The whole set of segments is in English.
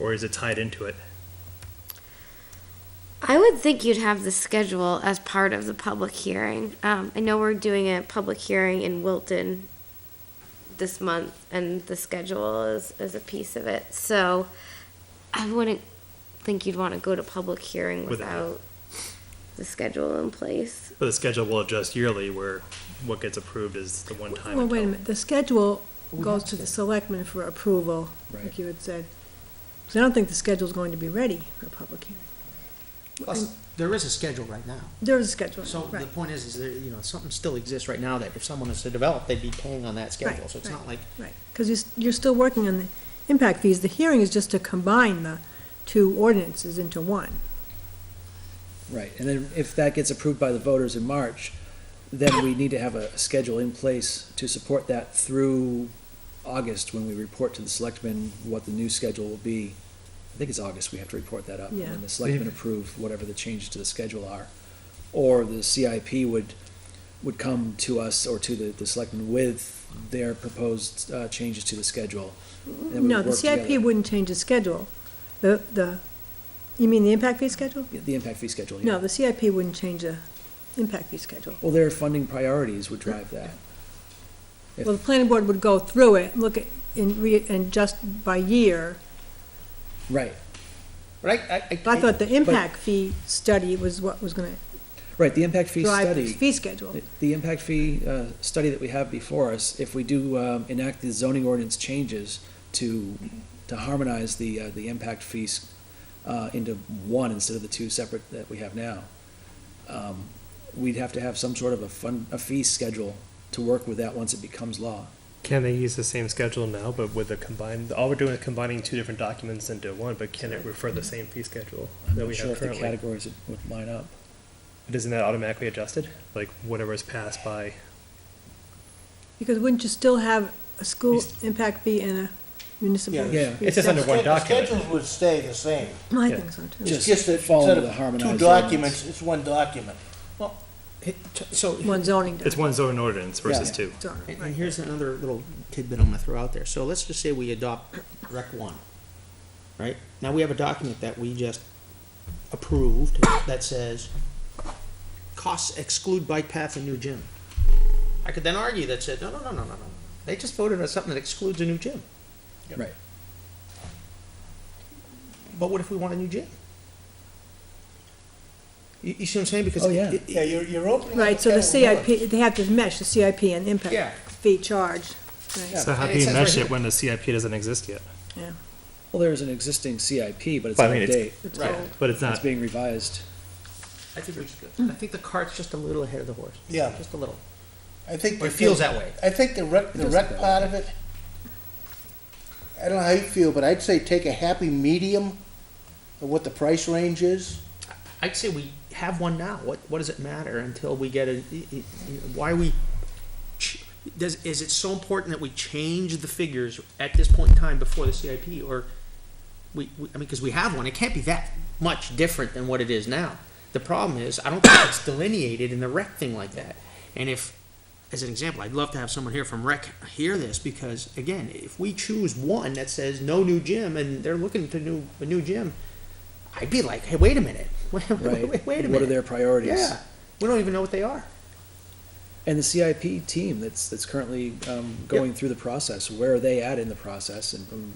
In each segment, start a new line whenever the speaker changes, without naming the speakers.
or is it tied into it?
I would think you'd have the schedule as part of the public hearing. Um, I know we're doing a public hearing in Wilton this month, and the schedule is, is a piece of it. So I wouldn't think you'd want to go to public hearing
Without.
without the schedule in place.
But the schedule will adjust yearly where what gets approved is the one time.
Well, wait a
until-
minute, the schedule goes to the selectmen for approval, like
Right.
you had said. So I don't think the schedule's going to be ready for a public hearing.
Plus, there is a schedule right now.
There is a schedule,
So the
right.
point is, is there, you know, something still exists right now that if someone is to develop, they'd be paying on that schedule.
Right,
So it's not like,
Right, because you're, you're still working on the impact fees. The hearing is just to combine the two ordinances into one.
Right, and then if that gets approved by the voters in March, then we need to have a schedule in place to support that through August, when we report to the selectmen what the new schedule will be. I think it's August, we have to report that up.
Yeah.
And the selectmen approve whatever the changes to the schedule are. Or the CIP would, would come to us or to the, the selectmen with their proposed, uh, changes to the schedule. and we would
No, the
work
CIP
together.
wouldn't change the schedule. The, the, you mean the impact fee schedule?
Yeah, The impact fee schedule, yeah.
No, the CIP wouldn't change the impact fee schedule.
Well, their funding priorities would drive that. If-
Well, the planning board would go through it, look at, and re, and just by year.
Right,
but I, I.
But I thought the impact fee study was what was gonna
right, the impact fee
drive the
study.
fee schedule.
The impact fee uh, study that we have before us, if we do um, enact the zoning ordinance changes to, to harmonize the, uh, the impact fees uh, into one instead of the two separate that we have now, um, we'd have to have some sort of a fund, a fee schedule to work with that once it becomes law.
Can they use the same schedule now, but with the combined, all we're doing is combining two different documents into one, but can it refer the same fee schedule
I'm
that
not
we
sure
have
if the
currently?
categories would- would line up.
But Isn't that automatically adjusted? Like whatever is passed by,
Because wouldn't you still have a school
Yes.
impact fee and a municipal?
Yeah.
Yeah.
fee
It's just under
separate?
one
The
document.
Schedules would stay the same.
I
yeah.
think so too.
Just
It's just that
follow
instead
the
of
harmonized
Two
ordinance.
documents, it's one document.
So.
One zoning
it's
document.
one zoning ordinance versus
Yeah.
two.
Sorry,
And,
right.
and here's another little tidbit I'm gonna throw out there. So let's just say we adopt Rec One, right? Now we have a document that we just approved that says costs exclude bike path and new gym. I could then argue that said, no, no, no, no, no, no. They just voted on something that excludes a new gym.
Right.
But what if we want a new gym? You, you see what I'm saying? Because
Oh, yeah.
it-
Yeah, you're, you're opening. up
Right,
a
so the
can of worms.
CIP, they have to mesh the CIP and
Yeah.
impact fee charge, right,
Yeah.
So how
And
do
it
you
says right
mesh it
here-
when the CIP doesn't exist yet?
yeah.
Well, there's an existing CIP, but it's
Well,
out
I mean,
of
it's-
date.
It's
Right.
old.
But it's
It's
not,
being revised.
I think we should, I think the cart's just a little ahead of the horse.
Yeah.
Just a little.
I think.
Or it
the-
feels that way.
I think the rec, the
does
rec
feel
part of it, I don't know how you feel, but I'd say take a happy medium of what the price range is.
I'd say we have one now. What what does it matter until we get a? Why we? ch- Does is it so important that we change the figures at this point in time before the CIP or? We, we I mean because we have one. It can't be that much different than what it is now. The problem is I don't think it's delineated in the rec thing like that. And if, as an example, I'd love to have someone here from rec hear this because again, if we choose one that says no new gym and they're looking to new a new gym, I'd be like, hey, wait a minute, wait, wait,
Right.
wait, wait a minute.
What are their priorities?
Yeah, we don't even know what they are.
And the CIP team that's, that's currently um, going through the process, where are they at in the process? And um,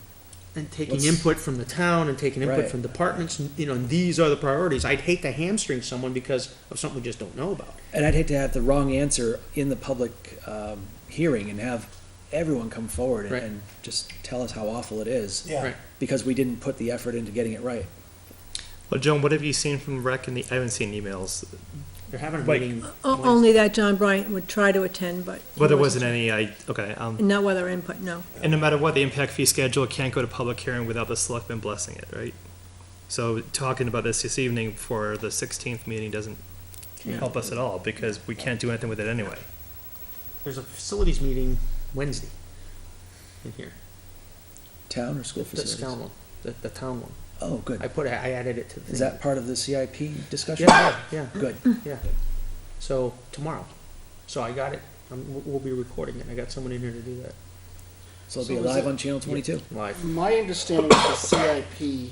And taking
Let's-
input from the town and taking input
Right.
from departments, and, you know, and these are the priorities. I'd hate to hamstring someone because of something we just don't know about.
and I'd hate to have the wrong answer in the public um, hearing and have everyone come forward and,
Right.
and just tell us how awful it is
Right.
because we didn't put the effort into getting it right.
well, Joan, what have you seen from rec and the, I haven't seen emails.
They're having a
Like-
meeting.
O- Only that John Bryant would try to attend, but. he
Well, there wasn't any, I, okay, um,
Not whether input, no.
And no matter what, the impact fee schedule can't go to public hearing without the selectmen blessing it, right? So talking about this this evening for the sixteenth meeting doesn't help us at all, because we can't do anything with it anyway.
There's a facilities meeting Wednesday in here.
Town or school
The
facilities?
town one, the, the town one.
Oh,
I
good.
put, it- I added it to the.
Is
thing.
that part of the CIP discussion?
Yeah, yeah,
Good.
yeah, yeah. So tomorrow. So I got it. Um, we'll- we'll be recording it. I got someone in here to do that.
So it'll be
So is
live
it-
on channel twenty-two.
Live.
My understanding of the CIP